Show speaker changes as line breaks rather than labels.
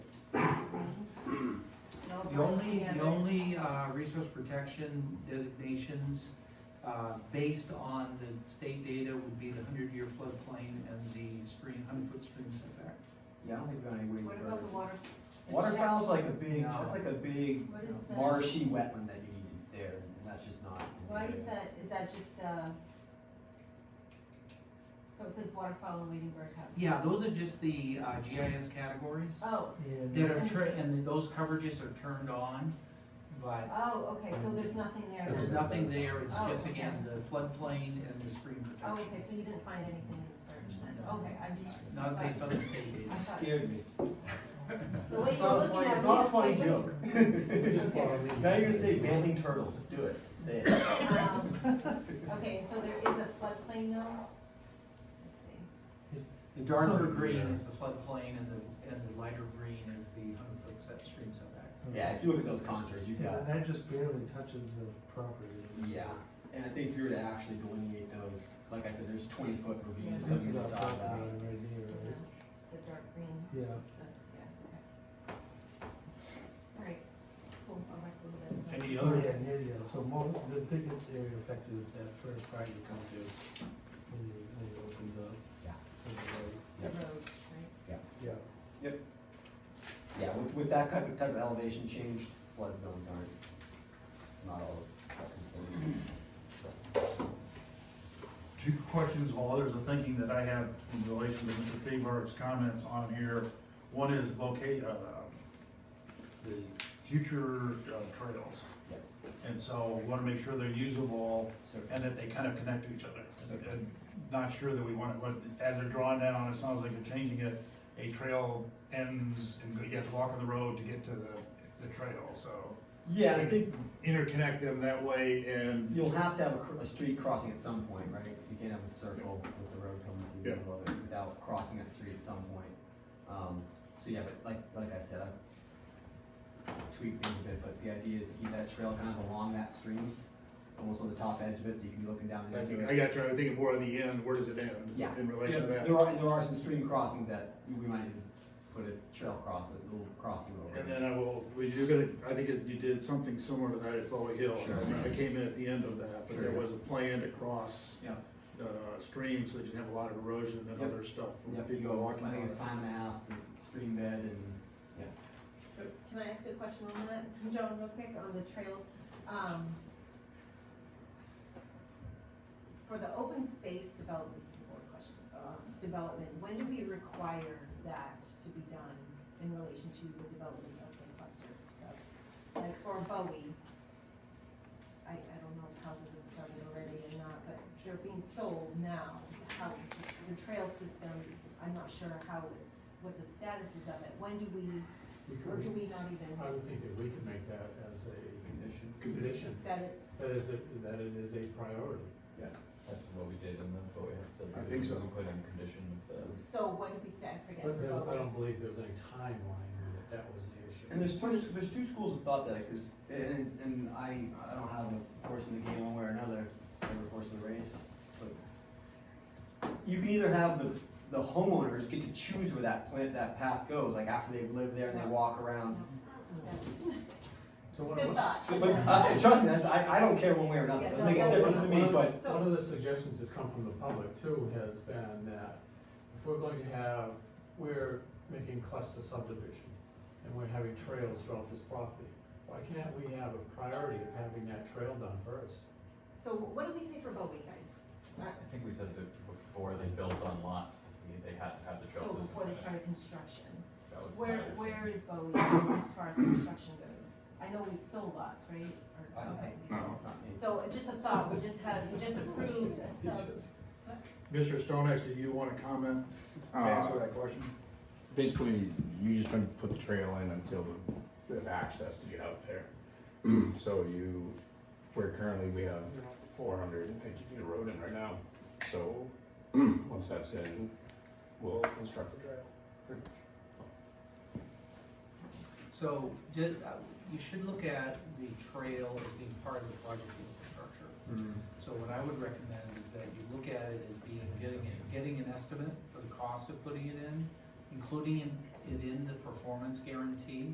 The only,
understand
the
it.
only, uh, resource protection designations, uh, based on the state data would be the hundred-year floodplain and the stream, hundred-foot stream setback.
Yeah, I don't think we've got any way
What
to
about the water?
Waterfowl's like a big,
No.
that's like a big
What is the?
marshy wetland that you need there, and that's just not. in the
Why is
area.
that, is that just, uh, so it says waterfowl and wading bird habitat?
Yeah, those are just the, uh, GIS categories
Oh,
that are, tr- and those coverages are turned on, but
oh, okay, so there's nothing there.
There's
then.
nothing there, it's
Oh,
just
okay.
again, the floodplain and the stream
Oh, okay,
protection,
so you didn't find anything in the search then,
No.
okay, I'm sorry.
not
I
based
thought-
on the state
I
data.
thought-
Scared me.
The way
It's
you're
not a
looking
funny-
at
It's
me,
not a
it's
funny
like-
joke. Now you're gonna say manly turtles, do it, say it.
Um, Okay, so there is a floodplain though? Let's see.
The darker
So-
green is the floodplain and the, and the lighter green is the hundred foot set stream setback.
Yeah, if you look at those contours, you've
Yeah,
got,
and that just barely touches the property.
yeah, and I think if you were to actually delineate those, like I said, there's twenty foot ravines
This is
coming
our
inside
property
that.
line right
So
here, right?
the, the dark green.
Yeah.
is the- Yeah, okay. All right, cool, I'll rest a little bit.
Any
Oh,
other,
yeah, near you, so mo the biggest area affected is that first part you come to, when you, when it opens up.
Yeah.
to the road.
The road, right?
Yeah,
Yeah, with, with that type of, type of elevation change, flood zones aren't, not all that concerned.
two questions while others are thinking that I have in relation to Mr. Thebert's comments on here. One is locate, uh, the future uh, trails.
Yes,
And so we wanna make sure they're usable
so,
and that they kind of connect to each other. And- and Not sure that we want it, but as they're drawn down, it sounds like they're changing it. A trail ends and you have to walk on the road to get to the, the trail, so
yeah, and I think
interconnect them that way and
You'll have to have a, cr- a street crossing at some point, right? 'Cause you can't have a circle with the road coming through the middle of it without crossing that street at some point. Um, so yeah, but like, like I said, I've tweaked things a bit, but the idea is to keep that trail kind of along that stream, almost on the top edge of it, so you can be looking down
I
into
think-
it.
I got you, I'm thinking more on the end, where does it end?
Yeah.
In relation to that?
There are, there are some stream crossings that we might even put a trail cross, a little crossing over.
And then I will, well, you're gonna, I think it- you did something similar to that at Bowie Hills.
Sure.
I came in at the end of that, but there
Sure.
was a plan to cross,
Yeah,
uh, streams, so you didn't have a lot of erosion and
Yep.
other stuff from
yep, you
people
go,
walking.
I think
on
it's
it.
time and a half, this stream bed and, yeah.
Can I ask a question on that, John, real quick, on the trails? Um, For the open space development, this is a board question, um, development, when do we require that to be done in relation to the development of the cluster? So, like for Bowie, I, I don't know if houses have started already or not, but they're being sold now. How, the trail system, I'm not sure how it's, what the status is of it. When do we
We
or do
could,
we not even,
I would think that we could make that as a
Condition.
condition,
that it's,
that is, a- that it is a priority.
That's what we did in the, but we have
I think so.
We put in condition of the.
so what did we say, I forget.
But I don't- I don't believe there's any timeline, that that was the issue.
And there's two, there's two schools of thought that, because, and, and I, I don't have a horse in the game one way or another, every horse in the race, but you can either have the, the homeowners get to choose where that plant, that path goes, like after they've lived there and they walk around.
So one
Good
of the,
thought.
So, but, uh, trust me, that's, I, I don't care one way or another, it doesn't make a difference to me, but,
So-
one of the suggestions that's come from the public too has been that if we're going to have, we're making cluster subdivision and we're having trails throughout this property, why can't we have a priority of having that trail done first?
So what did we say for Bowie, guys?
I think we said that before they built on lots, they- they had to have the
So
trail system.
before they
finished.
started construction,
That was my
where,
understanding.
where is Bowie as far as construction goes? I know we've sold lots, right? Or-
I don't
okay.
No.
not me.
So just a thought, we just had, we just approved a sub,
Mr. Stonex, do you wanna comment,
Uh,
answer that question?
basically you just gonna put the trail in until you have access to get out there. So you, where currently we have four hundred and fifty feet of road in right now, so once that's in, we'll construct the trail. pretty much.
So, ju- uh, you should look at the trail as being part of the project infrastructure.
Hmm.
So what I would recommend is that you look at it as being, getting, it- getting an estimate for the cost of putting it in, including in- it in the performance guarantee,